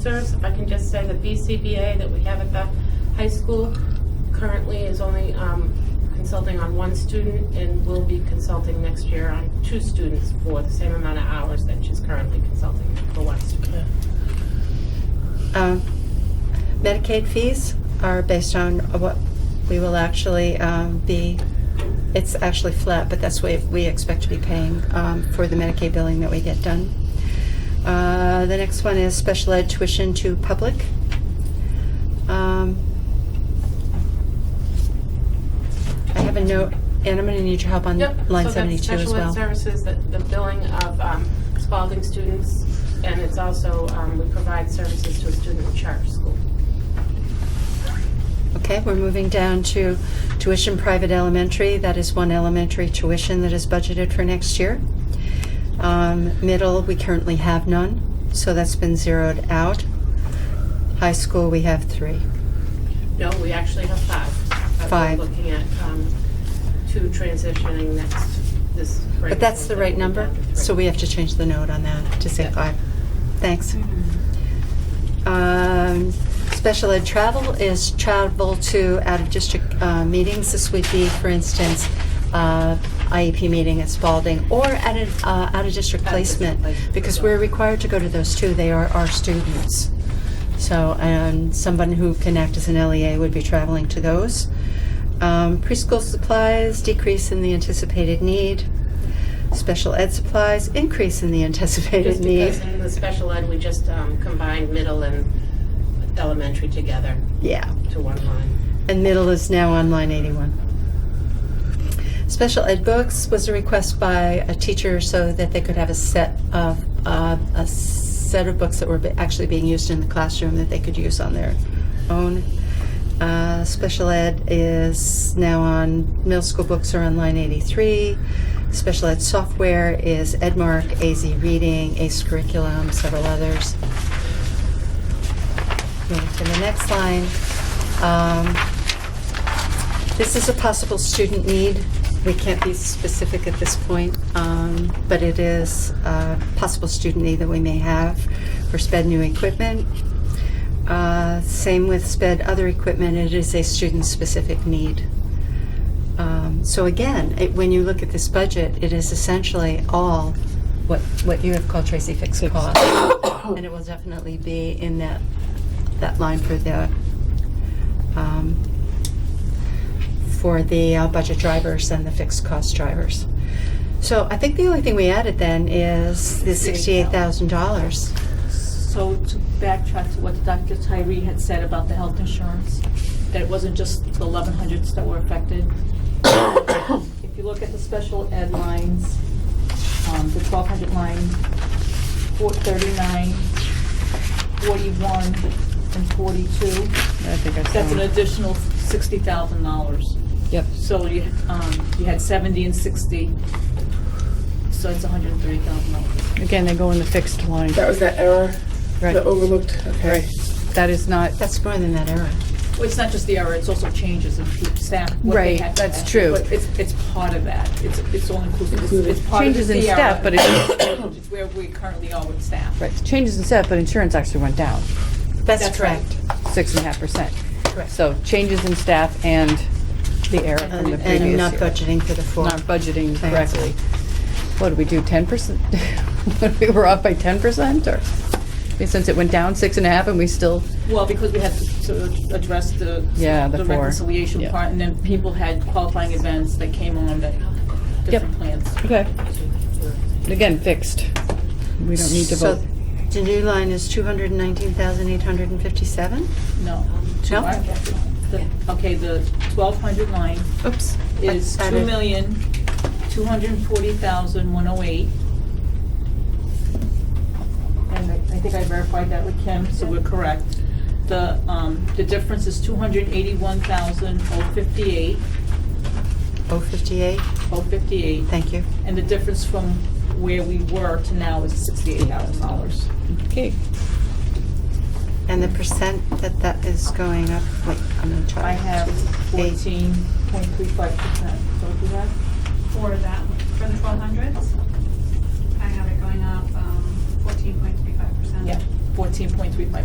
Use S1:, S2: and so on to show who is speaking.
S1: Sirs, if I can just say the BCBA that we have at the high school currently is only um, consulting on one student and will be consulting next year on two students for the same amount of hours that she's currently consulting for one student.
S2: Um, Medicaid fees are based on what we will actually um, be, it's actually flat, but that's what we expect to be paying um, for the Medicaid billing that we get done. Uh, The next one is special ed tuition to public. Um, I have a note, and I'm going to need your help on
S1: Yep.
S2: line 72 as
S1: So that's special
S2: well.
S1: ed services, that the billing of um, Spalding students, and it's also, um, we provide services to a student in charter school.
S2: Okay, we're moving down to tuition private elementary. That is one elementary tuition that is budgeted for next year. Um, Middle, we currently have none, so that's been zeroed out. High school, we have three.
S1: No, we actually have five. Uh, we're
S2: Five.
S1: Looking at um, two transitioning next, this.
S2: But that's the right number, so we have to change the note on that to say
S1: Yeah. Mm-hmm.
S2: five. Thanks. Um, Special ed travel is travel to out-of-district uh, meetings. This would be, for instance, uh, IEP meeting at Spalding or at an uh, out-of-district
S1: Out-of-district
S2: placement,
S1: placement.
S2: because we're required to go to those too. They are our students. So, and someone who can act as an LEA would be traveling to those. Um, Preschool supplies, decrease in the anticipated need. Special ed supplies, increase in the anticipated
S1: Just
S2: need.
S1: because in the special ed, we just um, combined middle and elementary together
S2: Yeah.
S1: to one line.
S2: And middle is now on line 81. Special ed books was a request by a teacher so that they could have a set of, uh, a set of books that were be- actually being used in the classroom that they could use on their own. Uh, Special ed is now on, middle school books are on line 83. Special ed software is Edmark, AZ Reading, ACE Curriculum, several others. Moving to the next line. Um, This is a possible student need. We can't be specific at this point, um, but it is a possible student need that we may have for sped new equipment. Uh, Same with sped other equipment, it is a student-specific need. Um, So again, it- when you look at this budget, it is essentially all what, what you have called Tracy fixed cost. And it will definitely be in that, that line for the, um, for the uh, budget drivers and the fixed cost drivers. So I think the only thing we added then is the sixty-eight thousand dollars.
S3: So to backtrack to what Dr. Tyree had said about the health insurance, that it wasn't just the eleven hundreds that were affected. If you look at the special ed lines, um, the twelve hundred line, four thirty-nine, forty-one, and forty-two,
S4: I think I
S3: that's an
S4: saw.
S3: additional sixty thousand dollars.
S4: Yep.
S3: So you, um, you had seventy and sixty, so it's hundred and thirty thousand dollars.
S4: Again, they go in the fixed line.
S5: That was that error, the
S4: Right.
S5: overlooked, okay.
S4: That is not,
S2: That's more than that error.
S3: Well, it's not just the error, it's also changes in pe- staff. what they
S4: Right,
S3: had
S4: that's
S3: staff.
S4: true.
S3: But it's, it's part of that, it's, it's all inclusive, It's- it's part of the
S4: Changes in staff,
S3: CRO.
S4: but it-
S3: It's where we currently are with staff.
S4: right, changes in staff, but insurance actually went down,
S2: That's
S3: That's
S2: correct.
S4: six and a half percent.
S2: Correct.
S4: So changes in staff and the error from the
S2: And
S4: previous year.
S2: and not budgeting for the full.
S4: Not budgeting
S2: Thanks.
S4: correctly. What did we do, ten percent? We were off by ten percent, or, since it went down six and a half and we still,
S3: Well, because we had to sort of address the.
S4: Yeah, the four.
S3: reconciliation
S4: Yeah.
S3: part, and then people had qualifying events that came on that, different plans.
S4: okay, again, fixed. We don't need to
S2: So
S4: vote.
S2: The new line is two hundred and nineteen thousand eight hundred and fifty-seven?
S3: No.
S2: No?
S3: All right. The- Okay, the twelve hundred line
S2: Oops.
S3: is
S2: I- I
S3: two
S2: did-
S3: million, two hundred and forty thousand, one oh eight. And I I think I verified that with Kim, so we're correct. The, um, the difference is two hundred and eighty-one thousand, oh fifty-eight,
S2: Oh, fifty-eight,
S3: oh fifty-eight.
S2: thank you.
S3: And the difference from where we were to now is sixty-eight thousand dollars.
S4: Okay,
S2: And the percent that that is going up, wait, I'm gonna try.
S3: I have
S2: Eight.
S3: fourteen point three five percent. So what do you have?
S6: for that, for the twelve hundreds. I have it going up um, fourteen point three five percent.
S3: Yeah, fourteen point three five